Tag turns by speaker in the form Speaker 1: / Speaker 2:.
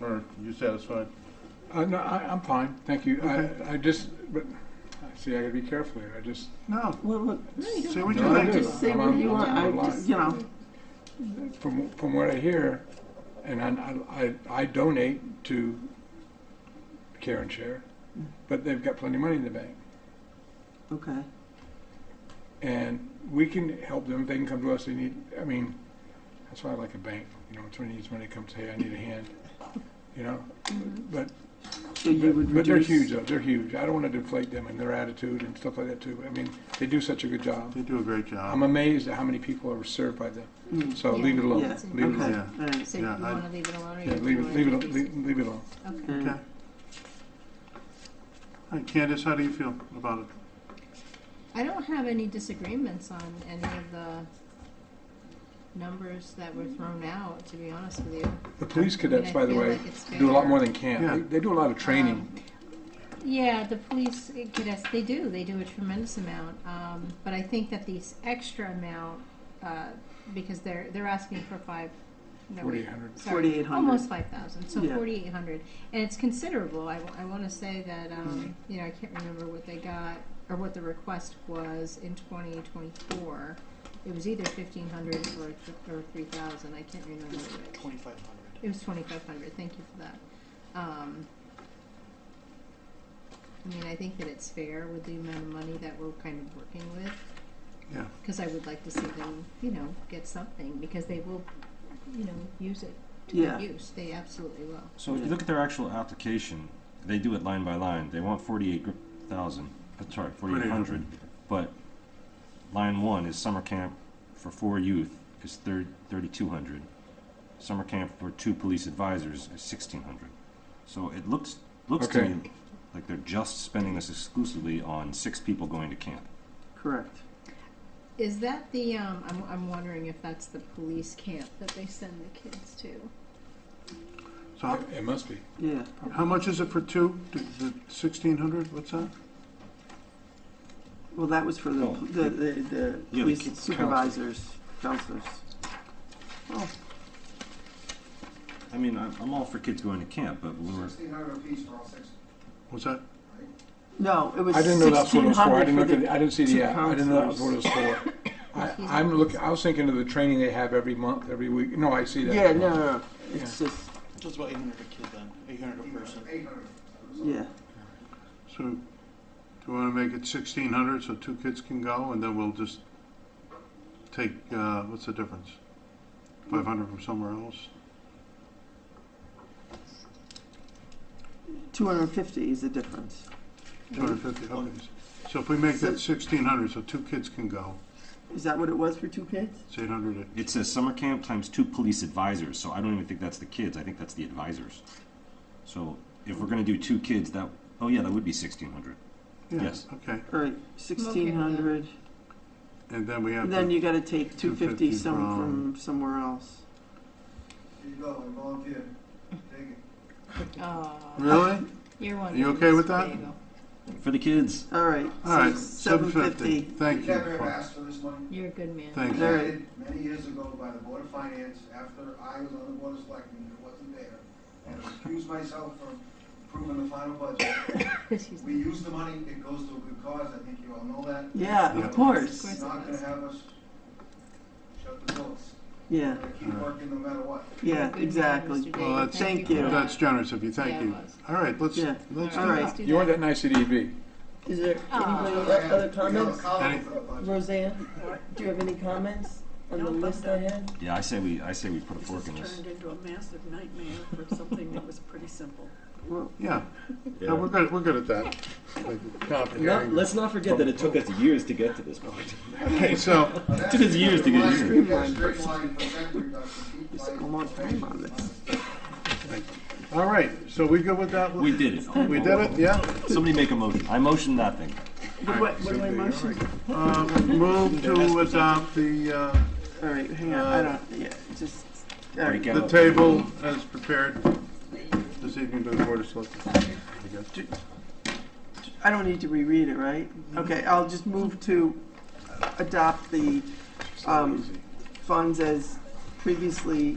Speaker 1: Or you satisfied?
Speaker 2: Uh, no, I, I'm fine, thank you. I, I just, but, see, I gotta be careful here, I just,
Speaker 1: No.
Speaker 3: Well, look,
Speaker 1: don't Say what you
Speaker 2: No, I
Speaker 1: think.
Speaker 2: do.
Speaker 3: just say
Speaker 2: I'm
Speaker 3: what
Speaker 2: on-
Speaker 3: you want,
Speaker 2: I'm
Speaker 3: I
Speaker 2: on
Speaker 3: just,
Speaker 2: line.
Speaker 3: you know,
Speaker 2: from, from what I hear, and I, I, I donate to Care and Share,
Speaker 3: Mm-hmm.
Speaker 2: but they've got plenty of money in the bank.
Speaker 3: okay,
Speaker 2: And we can help them, they can come to us, they need, I mean, that's why I like a bank, you know, when somebody needs money, comes, hey, I need a hand, you know? But,
Speaker 3: Mm-hmm. so you would
Speaker 2: but but they're
Speaker 3: reduce.
Speaker 2: huge, though, they're huge. I don't wanna deflate them and their attitude and stuff like that too. I mean, they do such a good job.
Speaker 1: They do a great
Speaker 2: I'm
Speaker 1: job.
Speaker 2: amazed at how many people are served by them.
Speaker 3: Mm.
Speaker 2: So
Speaker 4: Yeah.
Speaker 2: leave it alone.
Speaker 3: Yeah,
Speaker 2: Leave it alone.
Speaker 4: okay.
Speaker 1: Yeah.
Speaker 3: Alright.
Speaker 4: So you
Speaker 1: Yeah, I-
Speaker 4: want to leave it alone or you
Speaker 2: Yeah,
Speaker 4: do
Speaker 2: leave it,
Speaker 4: wanna
Speaker 2: leave it,
Speaker 4: do
Speaker 2: al-
Speaker 4: these?
Speaker 2: leave, leave it alone.
Speaker 4: Okay.
Speaker 3: Mm.
Speaker 1: Okay. All right, Candace, how do you feel about it?
Speaker 4: I don't have any disagreements on any of the numbers that were thrown out, to be honest with you.
Speaker 2: The police cadets,
Speaker 4: I
Speaker 2: by the
Speaker 4: feel
Speaker 2: way,
Speaker 4: like it's
Speaker 2: do a lot
Speaker 4: fair.
Speaker 2: more than
Speaker 1: Yeah.
Speaker 2: camp. They, they do a lot of
Speaker 4: Um,
Speaker 2: training.
Speaker 4: Yeah, the police uh, cadets, they do, they do a tremendous amount, um, but I think that these extra amount, uh, because they're, they're asking for five, no, wait,
Speaker 2: 4,800.
Speaker 4: sorry,
Speaker 3: 4,800.
Speaker 4: Almost five thousand, so
Speaker 3: Yeah.
Speaker 4: forty-eight hundred, and it's considerable, I, I wanna say that, um, you know, I can't remember what they got, or what the request was in twenty twenty-four. It was either fifteen hundred or, or three thousand, I can't remember which.
Speaker 5: Twenty-five hundred.
Speaker 4: It was twenty-five hundred, thank you for that. Um, I mean, I think that it's fair with the amount of money that we're kind of working with,
Speaker 1: Yeah,
Speaker 4: because I would like to see them, you know, get something, because they will, you know, use it to
Speaker 3: Yeah.
Speaker 4: their use, they absolutely will.
Speaker 6: So if you look at their actual application, they do it line by line. They want forty-eight thousand, uh, sorry, forty-eight hundred, but line one is summer camp for four youth is thirty, thirty-two hundred. Summer camp for two police advisors is sixteen hundred. So it looks, looks to
Speaker 2: Okay.
Speaker 6: me like they're just spending this exclusively on six people going to camp.
Speaker 3: Correct.
Speaker 4: Is that the, um, I'm, I'm wondering if that's the police camp that they send the kids to?
Speaker 1: so how-
Speaker 2: It must be.
Speaker 3: Yeah.
Speaker 1: how much is it for two? Sixteen hundred, what's that?
Speaker 3: Well, that was for the,
Speaker 6: Oh.
Speaker 3: the, the, the
Speaker 6: Yeah, the
Speaker 3: police
Speaker 6: kids-
Speaker 3: supervisors, counselors.
Speaker 6: I mean, I'm, I'm all for kids going to camp, but when we're,
Speaker 7: Sixteen hundred apiece for all six.
Speaker 1: Was that?
Speaker 3: No, it was
Speaker 2: I didn't know that's what it
Speaker 3: sixteen
Speaker 2: was for. I
Speaker 3: hundred
Speaker 2: didn't
Speaker 3: for
Speaker 2: look at, the- I
Speaker 3: the,
Speaker 2: didn't see
Speaker 3: two
Speaker 2: the, app. I didn't know that was what it was for. I,
Speaker 4: Excuse
Speaker 2: I'm
Speaker 4: me.
Speaker 2: looking, I was thinking of the training they have every month, every week. No, I see that.
Speaker 3: yeah, no, no, no. it's just,
Speaker 5: So it's about eight hundred a kid then, eight hundred a person.
Speaker 7: Eight hundred.
Speaker 3: yeah,
Speaker 1: So do you want to make it sixteen hundred so two kids can go and then we'll just take, uh, what's the difference? Five hundred from somewhere else?
Speaker 3: two hundred and fifty is the difference.
Speaker 1: Two hundred fifty, okay. So if we make that sixteen hundred so two kids can go,
Speaker 3: Is that what it was for two kids?
Speaker 1: it's eight hundred.
Speaker 6: it says summer camp times two police advisors, so I don't even think that's the kids, I think that's the advisors. So if we're gonna do two kids, that, oh yeah, that would be sixteen hundred. Yes.
Speaker 1: Okay,
Speaker 3: All right, sixteen hundred,
Speaker 1: and then we have,
Speaker 3: then
Speaker 1: to-
Speaker 3: you gotta take two
Speaker 1: 250
Speaker 3: fifty some
Speaker 1: from-
Speaker 3: from somewhere else.
Speaker 7: Here you go, I volunteer. Take it.
Speaker 4: Oh,
Speaker 1: really?
Speaker 4: you're one.
Speaker 1: You okay with that?
Speaker 6: For the kids.
Speaker 3: All right,
Speaker 1: All right,
Speaker 3: so seven fifty.
Speaker 1: Thank you.
Speaker 7: We never have
Speaker 1: Paul.
Speaker 7: asked for this money.
Speaker 4: You're a good man.
Speaker 1: Thank
Speaker 7: It
Speaker 1: you.
Speaker 3: All
Speaker 7: was
Speaker 3: right.
Speaker 7: added Many years ago by the Board of Finance, after I was on the Board of Selectmen, it wasn't there. And I excused myself from approving the final budget.
Speaker 4: Excuse
Speaker 7: We
Speaker 4: me.
Speaker 7: use the money, it goes to a good cause, I think you all know that.
Speaker 3: Yeah,
Speaker 1: Yeah.
Speaker 3: of
Speaker 1: Of
Speaker 4: course.
Speaker 3: course,
Speaker 7: It's not gonna have us shut the doors.
Speaker 3: yeah,
Speaker 7: We're gonna keep working no matter what.
Speaker 4: You're a
Speaker 3: yeah,
Speaker 4: good man, Mr.
Speaker 3: exactly.
Speaker 4: Daigle.
Speaker 1: Well, that's-
Speaker 4: Thank you.
Speaker 3: Thank
Speaker 4: for
Speaker 3: you.
Speaker 1: That's
Speaker 4: that.
Speaker 1: generous of you,
Speaker 4: Yeah,
Speaker 1: thank
Speaker 4: it
Speaker 1: you.
Speaker 4: was.
Speaker 1: All right, let's,
Speaker 3: Yeah.
Speaker 1: let's,
Speaker 3: All right.
Speaker 4: Let's do
Speaker 2: You want
Speaker 4: that.
Speaker 2: that nice E CDV?
Speaker 8: Is there anybody
Speaker 4: Ah.
Speaker 8: else, other
Speaker 7: We have a
Speaker 8: comments?
Speaker 7: column for the budget.
Speaker 8: Roseanne, do you have any comments on the list I had?
Speaker 6: Yeah, I say we, I say we put a fork
Speaker 9: This
Speaker 6: in
Speaker 9: has
Speaker 6: this.
Speaker 9: turned into a massive nightmare for something that was pretty simple.
Speaker 3: Well,
Speaker 1: yeah, Yeah, we're good, we're good at that.
Speaker 2: Complicated.
Speaker 6: let's not forget that it took us years to get to this point.
Speaker 1: Okay, so,
Speaker 7: It
Speaker 6: took us years to get here.
Speaker 3: almost time on this.
Speaker 1: all right, so we good with that?
Speaker 6: We did it.
Speaker 1: We did it, yeah?
Speaker 6: Somebody make a motion. I motion that thing.
Speaker 3: But what, what do I motion?
Speaker 1: Uh, Move to adopt the, uh,
Speaker 3: All right, hang on, I don't, yeah, just, all right.
Speaker 6: Break
Speaker 1: the
Speaker 6: out.
Speaker 1: table as prepared this evening by the Board of Selectmen. I guess.
Speaker 3: I don't need to reread it, right?
Speaker 8: Mm-hmm.
Speaker 3: Okay, I'll just move to adopt the um, funds as previously